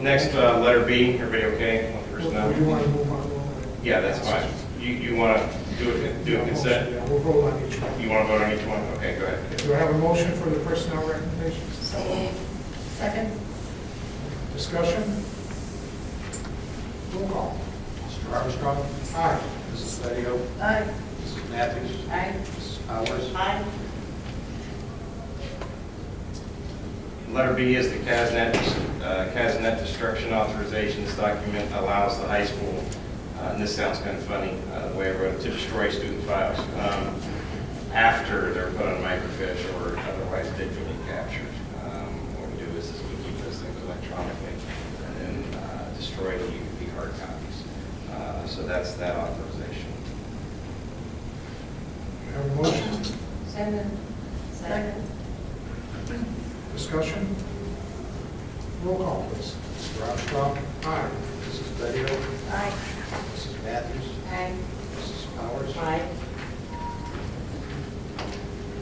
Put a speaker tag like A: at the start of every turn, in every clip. A: Next, uh, letter B, everybody okay with the
B: Or Do you
A: personnel?
B: want to move on one? at a-
A: Yeah, that's fine. You, you want to do it, do
B: Yeah,
A: it
B: motion,
A: consent?
B: Yeah, we'll vote on each one.
A: You want to vote on each one? Okay, go ahead.
B: Do I have a motion for the personnel recommendations?
C: So moved. Second?
B: Discussion? Roll call.
D: Mr. Armstrong,
B: Aye.
D: Mrs. Bedio,
C: Aye.
D: Mrs. Matthews,
C: Aye.
D: Mrs. Powers,
C: Aye.
A: Letter B is the CASNet, uh, CASNet destruction authorization. This document allows the high school, uh, and this sounds kind of funny, uh, the way I wrote it, to destroy student files um, after they're put on microfiche or otherwise digitally captured. Um, What we do is is we keep those things electronically and then uh, destroy the the hard copies. Uh, So that's that authorization.
B: Do I have a motion?
C: Second? Second?
B: Discussion? Roll call, please.
D: Mr. Armstrong,
B: Aye.
D: Mrs. Bedio,
C: Aye.
D: Mrs. Matthews,
C: Aye.
D: Mrs. Powers,
C: Aye.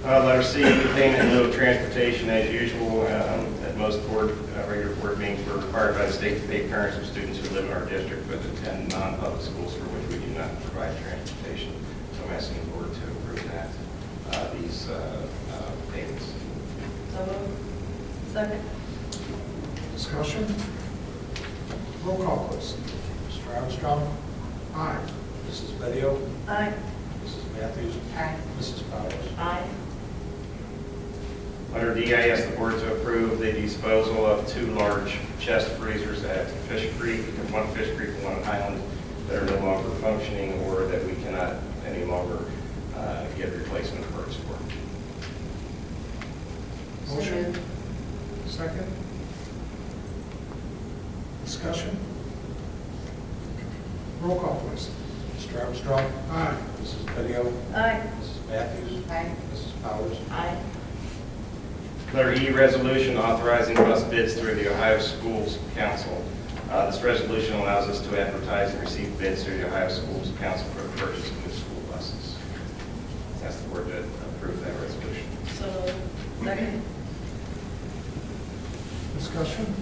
A: Uh, Letter C, payment in lieu of transportation as usual, um, at most board, uh, regular board meetings, we're required by the state to pay parents of students who live in our district but attend non-public schools for which we do not provide transportation. So I'm asking the board to approve that, uh, these uh, uh, payments.
C: So moved. Second?
B: Discussion? Roll call, please.
D: Mr. Armstrong,
B: Aye.
D: Mrs. Bedio,
C: Aye.
D: Mrs. Matthews,
C: Aye.
D: Mrs. Powers,
C: Aye.
A: Letter D, I ask the board to approve the disposal of two large chest freezers at Fish Creek, one Fish Creek and one Highland, that are no longer functioning or that we cannot any longer uh, get replacement parts for.
B: Motion?
C: Second.
B: Second? Discussion? Roll call, please.
D: Mr. Armstrong,
B: Aye.
D: Mrs. Bedio,
C: Aye.
D: Mrs. Matthews,
C: Aye.
D: Mrs. Powers,
C: Aye.
A: Letter E, resolution authorizing bus bids through the Ohio Schools Council. Uh, This resolution allows us to advertise and receive bids through the Ohio Schools Council for the purchase of new school buses. Ask the board to approve that resolution.
C: So moved. Second?
B: Discussion?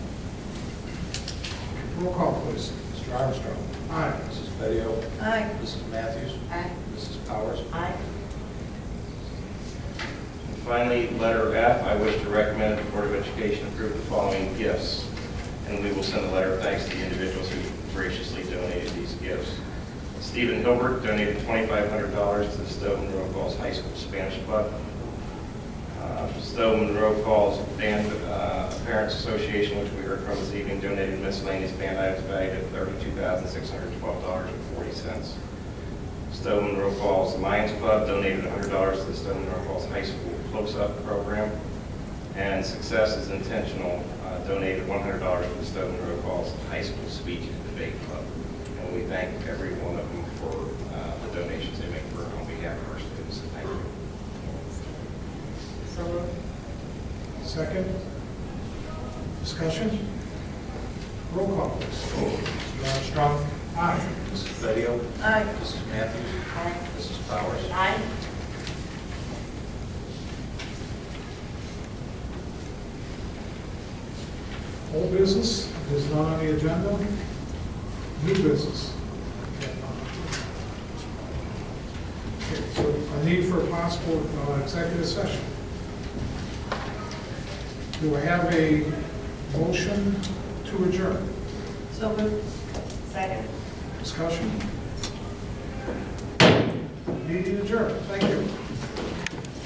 B: Roll call, please.
D: Mr. Armstrong,
B: Aye.
D: Mrs. Bedio,
C: Aye.
D: Mrs. Matthews,
C: Aye.
D: Mrs. Powers,
C: Aye.
A: And Finally, letter F, I wish to recommend the Board of Education approve the following gifts. And we will send a letter of thanks to the individuals who graciously donated these gifts. Stephen Hilbert donated $2,500 to the Stowe Monroe Falls High School Spanish Club. Uh, Stowe Monroe Falls Band uh, Parents Association, which we heard from this evening, donated miscellaneous band items valued at $32,612.40. Stowe Monroe Falls Lions Club donated $100 to the Stowe Monroe Falls High School Close-Up Program. And Success is Intentional uh, donated $100 to the Stowe Monroe Falls High School Speech and Debate Club. And we thank every one of them for uh, the donations they make for on behalf of our students. Thank you.
C: So moved.
B: Second? Discussion? Roll call, please.
D: Mr. Armstrong,
B: Aye.
D: Mrs. Bedio,
C: Aye.
D: Mrs. Matthews,
C: Aye.
D: Mrs. Powers,
C: Aye.
B: Old business is not on the agenda. New business. Okay, So a need for a possible uh, executive session. Do I have a motion to adjourn?
C: So moved. Second?
B: Discussion? Meeting adjourned. Thank you.